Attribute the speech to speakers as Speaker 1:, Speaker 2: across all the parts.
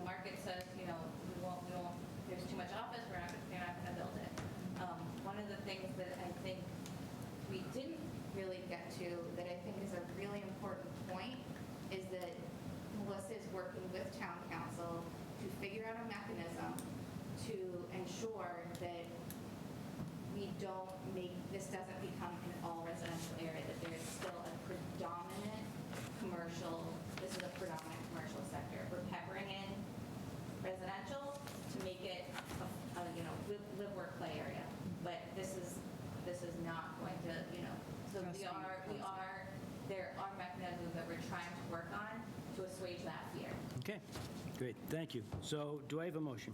Speaker 1: Um, internal mechanism to ensure that we don't make, this doesn't become an all residential area, that there is still a predominant commercial, this is a predominant commercial sector. We're peppering in residential to make it, a- a, you know, live, live, work, play area. But this is, this is not going to, you know, so we
Speaker 2: Trustee,
Speaker 1: are, we
Speaker 2: trustee.
Speaker 1: are, there are mechanisms that we're trying to work on to assuage that fear.
Speaker 3: Okay, great, thank you. So do I have a motion?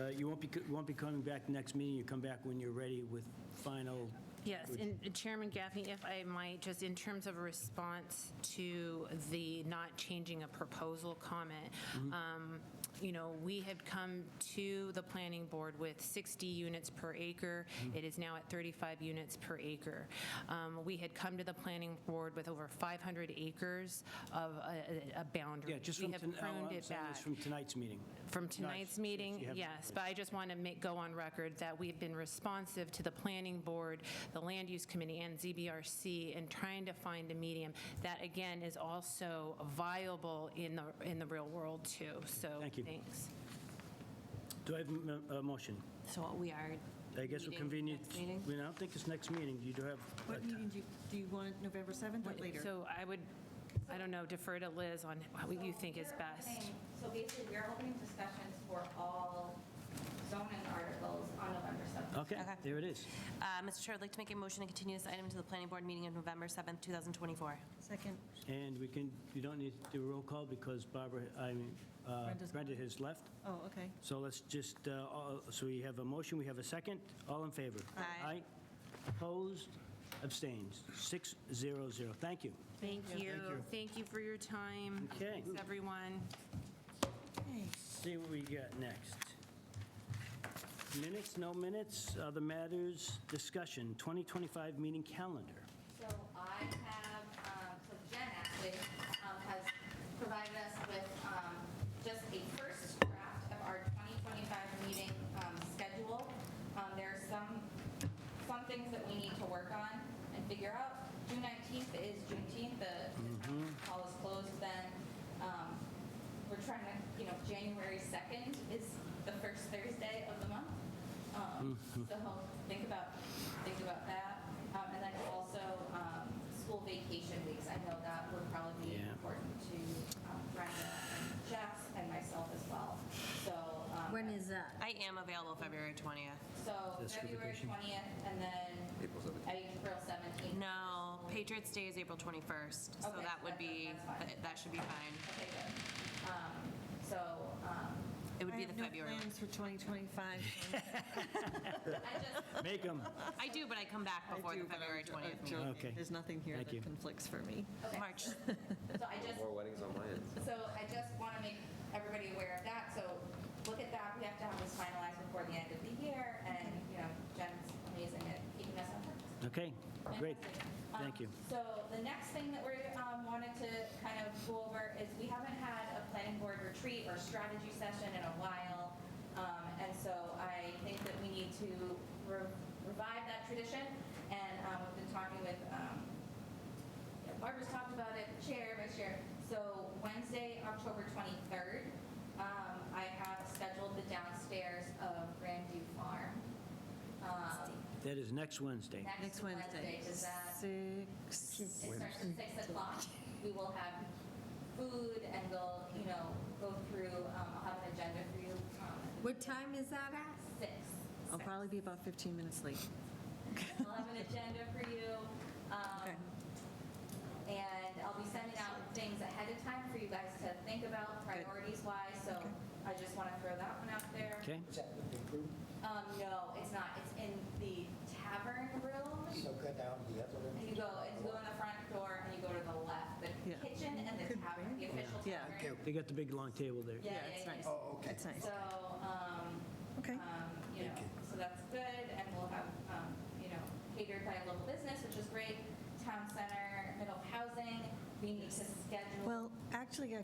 Speaker 3: Uh, You won't be, co- won't be coming back next meeting, you come back when you're ready with final,
Speaker 2: Yes, and Chairman Gaffney, if I might, just in terms of a response to the not changing a proposal comment,
Speaker 3: Mm-hmm.
Speaker 2: um, you know, we had come to the planning board with 60 units per acre.
Speaker 3: Mm-hmm.
Speaker 2: It is now at 35 units per acre. Um, We had come to the planning board with over 500 acres of a- a a boundary.
Speaker 3: yeah, just from,
Speaker 2: We have
Speaker 3: ton- all
Speaker 2: pruned
Speaker 3: I'm
Speaker 2: it
Speaker 3: saying is
Speaker 2: back
Speaker 3: from tonight's meeting.
Speaker 2: from
Speaker 3: since
Speaker 2: tonight's
Speaker 3: you
Speaker 2: meeting,
Speaker 3: have-
Speaker 2: yes, but I just want to make, go on record that we've been responsive to the planning board, the land use committee, and ZBRC in trying to find a medium that, again, is also viable in the, in the real world, too, so,
Speaker 3: Thank you.
Speaker 2: thanks.
Speaker 3: Do I have a m- a motion?
Speaker 4: So what we are.
Speaker 3: I guess we're
Speaker 4: meeting
Speaker 3: convenient,
Speaker 4: next meeting?
Speaker 3: we don't think it's next meeting, you do have. a
Speaker 5: What
Speaker 3: ti-
Speaker 5: meeting do you, do you want it November 7th or later?
Speaker 2: So I would, I don't know, defer to Liz on what you think is
Speaker 1: So we're
Speaker 2: best.
Speaker 1: opening- So basically, we're opening discussions for all zoning articles on November 7th.
Speaker 3: Okay,
Speaker 4: Okay.
Speaker 3: there it is.
Speaker 4: Uh, Mr. Chair, I'd like to make a motion to continue this item to the planning board meeting of November 7th, 2024.
Speaker 5: Second,
Speaker 3: And we can, you don't need to do a roll call because Barbara, I mean, uh,
Speaker 5: Brenda's
Speaker 3: Brenda has left.
Speaker 5: oh, okay.
Speaker 3: So let's just, uh, all- so we have a motion, we have a second. All in favor?
Speaker 4: Aye.
Speaker 3: Opposed? Abstains? 600. Thank you.
Speaker 2: Thank you.
Speaker 3: you.
Speaker 2: Thank you for your time.
Speaker 3: Okay.
Speaker 2: Thanks, everyone.
Speaker 5: Okay.
Speaker 3: See what we got next. Minutes, no minutes, other matters, discussion, 2025 meeting calendar.
Speaker 1: So I have, um, so Jen actually um, has provided us with um, just a first draft of our 2025 meeting um, schedule. Um, There are some, some things that we need to work on and figure out. June 19th is Juneteenth, the the hall is closed then. Um, We're trying to, you know, January 2nd is the first Thursday of the month. Um,
Speaker 3: Mm-hmm.
Speaker 1: So think about, think about that. Um, And then also, um, school vacation weeks, I know that would probably be
Speaker 3: Yeah.
Speaker 1: important to um, Brenda and Jess and myself as well. So. um,
Speaker 6: When is that?
Speaker 4: I am available February 20th.
Speaker 1: So
Speaker 3: The school
Speaker 1: February
Speaker 3: vacation.
Speaker 1: 20th and then. April 17th. April 17th.
Speaker 4: No, Patriots Day is April 21st, so
Speaker 1: Okay,
Speaker 4: that would
Speaker 1: that's-
Speaker 4: be,
Speaker 1: that's fine.
Speaker 4: that- that should be fine.
Speaker 1: Okay, good. Um, So um,
Speaker 4: It would be the
Speaker 5: I
Speaker 4: February.
Speaker 5: have no plans for 2025.
Speaker 1: I just,
Speaker 3: Make them.
Speaker 4: I do, but I come back
Speaker 5: I
Speaker 4: before
Speaker 5: do,
Speaker 4: the
Speaker 5: but I'm
Speaker 4: February
Speaker 5: jo- I'm
Speaker 4: 20th meeting.
Speaker 5: joking.
Speaker 3: Okay.
Speaker 5: There's nothing here
Speaker 3: Thank you.
Speaker 5: that conflicts for me.
Speaker 1: okay.
Speaker 4: March,
Speaker 1: So I just,
Speaker 7: More weddings on my end.
Speaker 1: so I just want to make everybody aware of that. So look at that. We have to have this finalized before the end of the year. And, you know, Jen's amazing at keeping us on task.
Speaker 3: Okay, great.
Speaker 1: Fantastic.
Speaker 3: Thank
Speaker 1: Um,
Speaker 3: you.
Speaker 1: So the next thing that we um, wanted to kind of go over is we haven't had a planning board retreat or strategy session in a while. Um, And so I think that we need to re- revive that tradition. And um, we've been talking with, um, yeah, Barbara's talked about it, chair, vice chair. So Wednesday, October 23rd, um, I have scheduled the downstairs of Grandview Farm. Um,
Speaker 3: That is next Wednesday.
Speaker 1: Next Wednesday, does that?
Speaker 5: Six.
Speaker 1: It starts at six o'clock. We will have food and we'll, you know, go through, um, I'll have an agenda for you. um,
Speaker 6: What time is that at?
Speaker 1: Six.
Speaker 5: I'll probably be about 15 minutes late.
Speaker 1: I'll have an agenda for you. um,
Speaker 5: Okay.
Speaker 1: And I'll be sending out things ahead of time for you guys to think about priorities wise. So I just want to throw that one out there.
Speaker 3: Okay?
Speaker 1: Um, no, it's not. It's in the tavern room.
Speaker 8: So go down the other
Speaker 1: And you go, it's go in the front door and you go to the left, the
Speaker 5: Yeah.
Speaker 1: kitchen and the tavern, the official
Speaker 5: Yeah.
Speaker 1: tavern.
Speaker 3: They got the big long table there.
Speaker 1: Yeah,
Speaker 5: Yeah,
Speaker 1: yeah,
Speaker 5: it's
Speaker 1: yeah.
Speaker 5: nice.
Speaker 8: Oh, okay.
Speaker 5: That's nice.
Speaker 1: So, um,
Speaker 5: Okay.
Speaker 1: um, you know, so that's good, and we'll have, um, you know, catered by local business, which is great, town center, middle housing, we need to schedule.
Speaker 5: Well, actually, I